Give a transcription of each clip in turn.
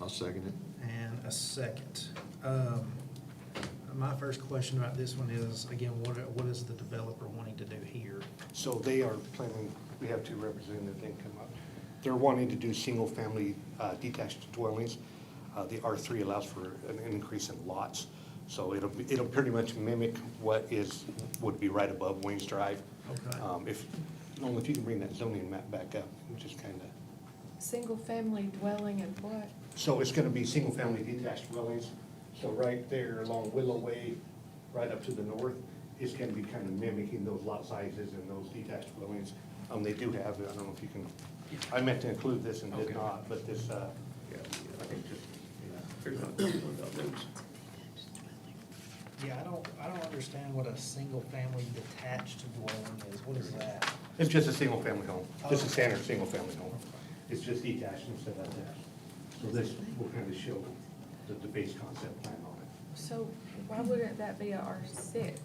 I'll second it. and a second. Um, My first question about this one is, again, what, are- what is the developer wanting to do here? So they are planning, we have two representatives that come up. They're wanting to do single-family uh, detached dwellings. Uh, The R3 allows for an increase in lots, so it'll, be- it'll pretty much mimic what is, would be right above Wayne's Drive. Okay. Um, If, only if you can bring that zoning map back up, and just kind of. Single-family dwelling and what? So it's gonna be single-family detached dwellings, so right there along Willow Way, right up to the north, is gonna be kind of mimicking those lot sizes and those detached dwellings. Um, they do have, I don't know if you can, I meant to include this and did Okay. not, but this, uh, Yeah, I think just, yeah, here's another one about those. Yeah, I don't, I don't understand what a single-family detached dwelling is. What is that? it's just a single-family home, just a standard single-family home. It's just detached instead of attached. So this will kind of show the, the base concept plan on it. So why wouldn't that be a R six?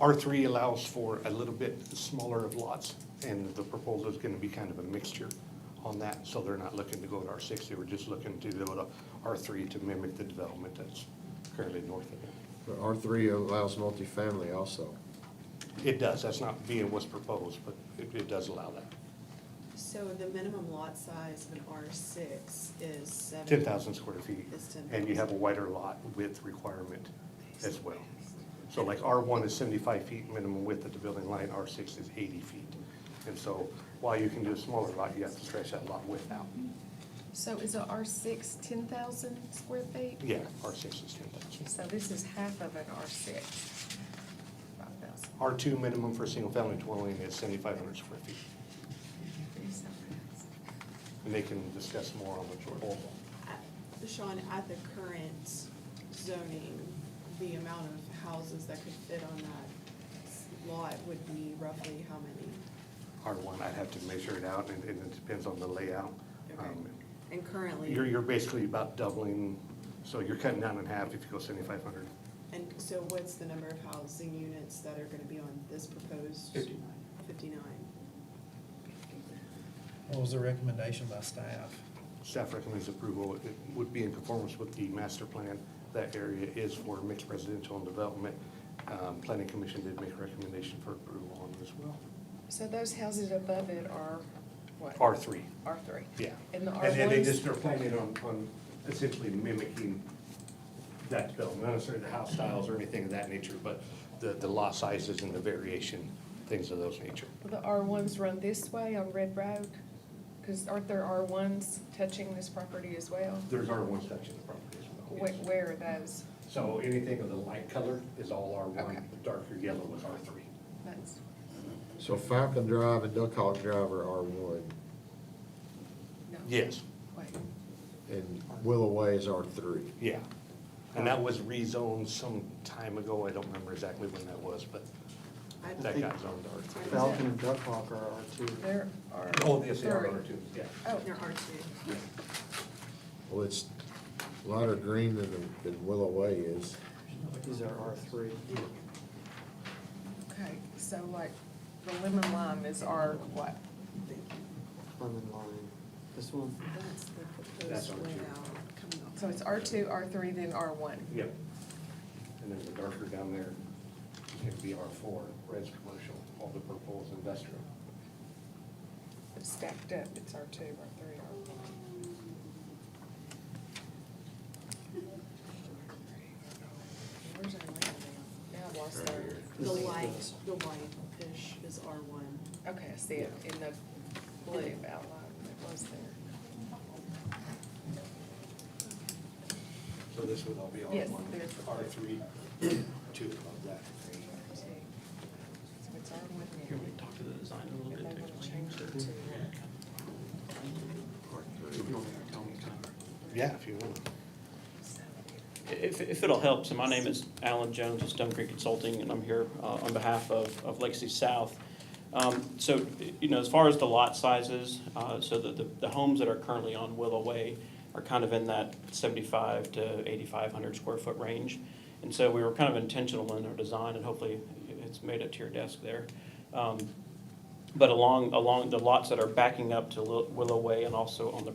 R3 allows for a little bit smaller of lots, and the proposal is going to be kind of a mixture on that, so they're not looking to go to R6, they were just looking to go to R3 to mimic the development that's currently north of it. But R three allows multifamily also. It does, that's not being what's proposed, but it, it does allow that, So the minimum lot size of an R six is seven. 10,000 square feet. It's 10,000. And you have a wider lot width requirement as well. So like R1 is 75 feet minimum width of the building line, R6 is 80 feet. And so while you can do a smaller lot, you have to stretch that lot width out. So is a R six ten thousand square feet? Yeah, R six is ten thousand. So this is half of an R six, five thousand. R two minimum for a single family dwelling is seventy-five hundred square feet, and they can discuss more on the proposal. I- Uh, Sean, at the current zoning, the amount of houses that could fit on that lot would be roughly how many? R one, I'd have to measure it out, and, and it depends on the layout. Okay. Um, And currently. You're, you're basically about doubling, so you're cutting down in half if you go seventy-five hundred. And so what's the number of housing units that are gonna be on this proposed? Fifty-nine. Fifty-nine. What was the recommendation by staff? Staff recommends approval. It would be in conformance with the master plan. That area is for mixed residential and development. Um, planning commission did make a recommendation for approval on this as well. So those houses above it are what? R three. R three. Yeah. And the R And then they ones, just are planning on, on essentially mimicking that development, not necessarily the house styles or anything of that nature, but the, the lot sizes and the variation, things of those nature. the R ones run this way on Red Road? Cause aren't there R ones touching this property as well? There's R one section of the property as well. Where, yes. where are those? So anything of the light color is all R one, Okay. the darker yellow is R three. That's, So Falcon Drive and Duck Hawk Drive are R one, no. Yes, Wait, and Willow Way is R three. yeah. And that was rezoned some time ago. I don't remember exactly when that was, but I that believe got zoned R three. Falcon and Duck Hawk are R two. there are. Oh, yes, they are three. R two, yeah. Oh, there are two. Well, it's a lighter green than, than Willow Way is. These are R three. okay, so like, the lemon lime is our what? Lemon lime. This one, That's the That's proposed R two. layout coming off. So it's R two, R three, then R one. Yep. And then the darker down there can be R four, red's commercial, all the purple is industrial. It's stacked up, it's R two, R three, R one. Where's our land now? Now I lost Right here. our, The This is light, this. the white-ish is R one. okay, I see it in the blue outline that was there. So this would all be R Yes, one, there's- R three, two of that. So it's R one now. Here, we talk to the designer a little bit to explain. Yeah, if you want. If, if it'll help, so my name is Alan Jones of Stone Creek Consulting, and I'm here uh, on behalf of, of Legacy South. Um, So, you know, as far as the lot sizes, uh, so the, the- the homes that are currently on Willow Way are kind of in that seventy-five to eighty-five hundred square foot range. And so we were kind of intentional in our design, and hopefully it's made it to your desk there. Um, But along, along the lots that are backing up to Lil- Willow Way and also on the